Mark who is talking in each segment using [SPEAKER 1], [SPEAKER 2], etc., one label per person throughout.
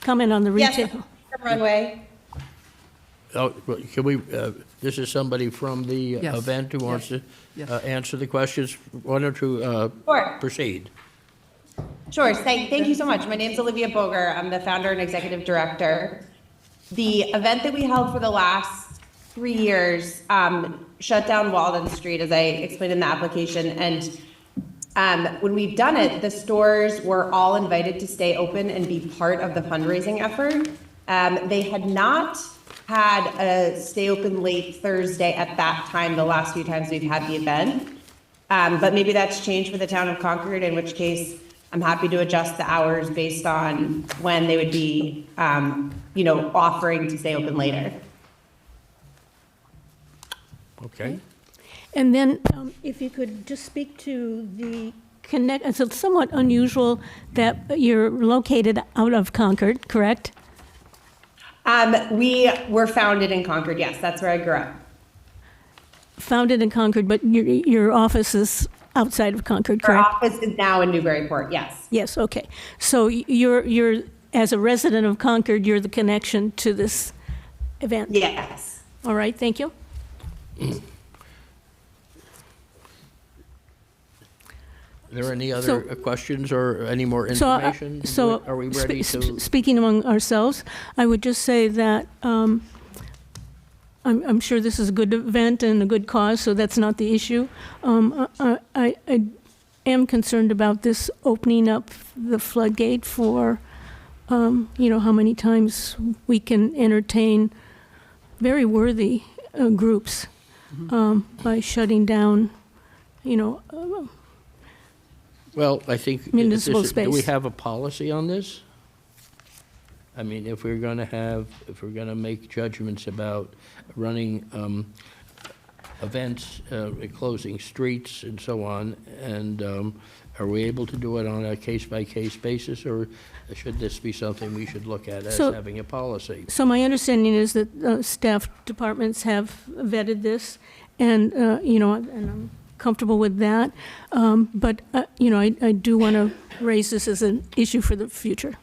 [SPEAKER 1] comment on the
[SPEAKER 2] Yes,
[SPEAKER 1] retail?
[SPEAKER 2] the runway.
[SPEAKER 3] Oh, well, can we, uh, this is somebody from the uh,
[SPEAKER 4] Yes.
[SPEAKER 3] event who wants to
[SPEAKER 4] Yes.
[SPEAKER 3] uh, answer the questions. Why don't you uh,
[SPEAKER 2] Sure.
[SPEAKER 3] proceed?
[SPEAKER 2] Sure. Thank, thank you so much. My name's Olivia Boger. I'm the founder and executive director. The event that we held for the last three years um, shut down Walden Street, as I explained in the application. And um, when we've done it, the stores were all invited to stay open and be part of the fundraising effort. Um, they had not had a stay open late Thursday at that time, the last few times we've had the event. Um, but maybe that's changed for the town of Concord, in which case I'm happy to adjust the hours based on when they would be, um, you know, offering to stay open later.
[SPEAKER 3] Okay.
[SPEAKER 1] And then um, if you could just speak to the connect, it's somewhat unusual that you're located out of Concord, correct?
[SPEAKER 2] Um, we were founded in Concord. Yes, that's where I grew up.
[SPEAKER 1] Founded in Concord, but your, your office is outside of Concord,
[SPEAKER 2] Our
[SPEAKER 1] correct?
[SPEAKER 2] office is now in Newburyport. Yes,
[SPEAKER 1] Yes, okay. So y- you're, you're, as a resident of Concord, you're the connection to this event?
[SPEAKER 2] yes.
[SPEAKER 1] All right, thank you.
[SPEAKER 3] Are there any other uh, questions or any more
[SPEAKER 1] So, uh,
[SPEAKER 3] information?
[SPEAKER 1] So.
[SPEAKER 3] Are we
[SPEAKER 1] spe-
[SPEAKER 3] ready
[SPEAKER 1] sp-
[SPEAKER 3] to?
[SPEAKER 1] Speaking among ourselves, I would just say that um, I'm, I'm sure this is a good event and a good cause, so that's not the issue. Um, I, I I am concerned about this opening up the floodgate for, um, you know, how many times we can entertain very worthy uh, groups
[SPEAKER 3] Mm-hmm.
[SPEAKER 1] um, by shutting down, you know, uh,
[SPEAKER 3] Well, I think. it-
[SPEAKER 1] Municipal
[SPEAKER 3] this is- Do we
[SPEAKER 1] space.
[SPEAKER 3] have a policy on this? I mean, if we're going to have, if we're going to make judgments about running um, events, uh, closing streets and so on, and um, are we able to do it on a case-by-case basis, or should this be something we should look at as
[SPEAKER 1] So-
[SPEAKER 3] having a policy?
[SPEAKER 1] So my understanding is that uh, staff departments have vetted this, and, uh, you know, and I'm comfortable with that. Um, But, uh, you know, I I do want to raise this as an issue for the future.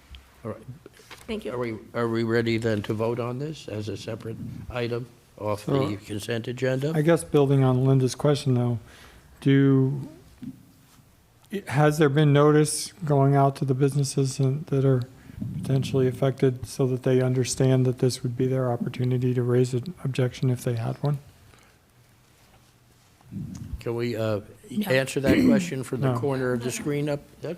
[SPEAKER 3] All right.
[SPEAKER 1] Thank
[SPEAKER 3] Are
[SPEAKER 1] you.
[SPEAKER 3] we, are we ready then to vote on this as a separate item off the
[SPEAKER 5] So-
[SPEAKER 3] consent agenda?
[SPEAKER 5] I guess building on Linda's question though, do, has there been notice going out to the businesses and- that are potentially affected so that they understand that this would be their opportunity to raise an objection if they had one?
[SPEAKER 3] Can we uh, answer that question from the
[SPEAKER 5] No.
[SPEAKER 3] corner of the screen up? that-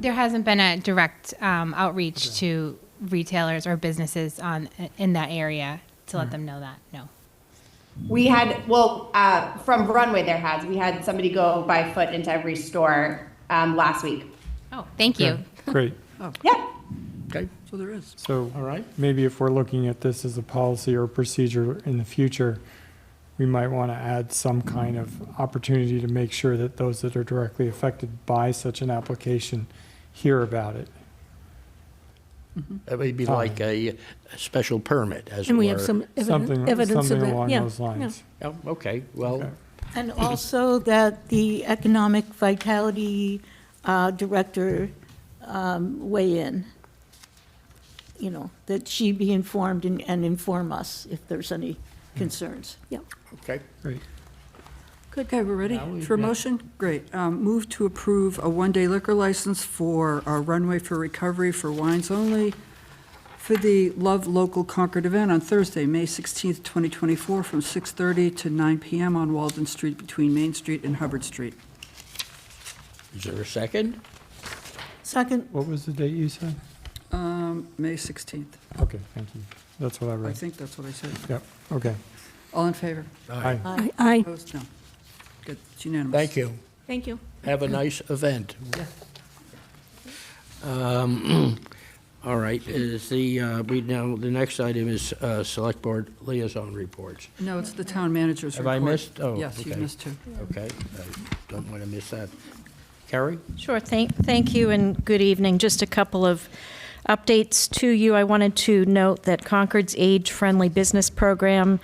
[SPEAKER 6] There hasn't been a direct um, outreach to retailers or businesses on in that area to let them know that. No.
[SPEAKER 2] We had, well, uh, from Runway there has, we had somebody go by foot into every store, um, last week.
[SPEAKER 6] Oh, thank you.
[SPEAKER 5] Great.
[SPEAKER 2] Yeah.
[SPEAKER 3] Okay,
[SPEAKER 4] So there is.
[SPEAKER 5] So
[SPEAKER 3] all right.
[SPEAKER 5] maybe if we're looking at this as a policy or procedure in the future, we might want to add some kind of opportunity to make sure that those that are directly affected by such an application hear about it.
[SPEAKER 3] That would be like a a special permit, as it
[SPEAKER 1] And
[SPEAKER 3] were.
[SPEAKER 1] we have some
[SPEAKER 5] Something,
[SPEAKER 1] eviden- evidence of
[SPEAKER 5] something
[SPEAKER 1] that.
[SPEAKER 5] along
[SPEAKER 1] Yeah,
[SPEAKER 5] those lines.
[SPEAKER 3] Oh, Okay, well,
[SPEAKER 5] Okay.
[SPEAKER 7] And also that the Economic Vitality uh, Director um, weigh in, you know, that she be informed and and inform us if there's any concerns.
[SPEAKER 1] yeah, yeah.
[SPEAKER 3] okay.
[SPEAKER 5] Great.
[SPEAKER 4] Good, okay, we're ready
[SPEAKER 3] Now we-
[SPEAKER 4] for a
[SPEAKER 3] yeah.
[SPEAKER 4] motion? Great. Um, Move to approve a one-day liquor license for our Runway for Recovery for wines only for the Love Local Concord event on Thursday, May 16th, 2024, from 6:30 to 9 PM on Walden Street between Main Street and Hubbard Street.
[SPEAKER 3] Is there a second?
[SPEAKER 7] Second,
[SPEAKER 5] What was the date you said?
[SPEAKER 4] Um, May 16th.
[SPEAKER 5] Okay, thank you. That's what I
[SPEAKER 4] I
[SPEAKER 5] read.
[SPEAKER 4] think that's what I said.
[SPEAKER 5] Yep, okay.
[SPEAKER 4] All in favor?
[SPEAKER 5] Aye.
[SPEAKER 1] Aye, Aye,
[SPEAKER 4] Opposed? No. Good. It's unanimous.
[SPEAKER 3] Thank you.
[SPEAKER 1] thank you.
[SPEAKER 3] Have a nice event. Um, All right, is the, uh, we now, the next item is uh, Select Board Liaison Reports.
[SPEAKER 4] No, it's the town manager's
[SPEAKER 3] Have
[SPEAKER 4] report.
[SPEAKER 3] I missed? Oh,
[SPEAKER 4] Yes, you
[SPEAKER 3] okay.
[SPEAKER 4] missed two.
[SPEAKER 3] Okay, I don't want to miss that. Carrie?
[SPEAKER 8] Sure, thank, thank you and good evening. Just a couple of updates to you. I wanted to note that Concord's Age Friendly Business Program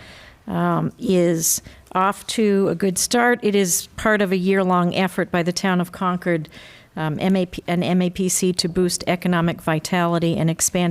[SPEAKER 8] um, is off to a good start. It is part of a year-long effort by the town of Concord, um, MAP, and MAPC to boost economic vitality and expand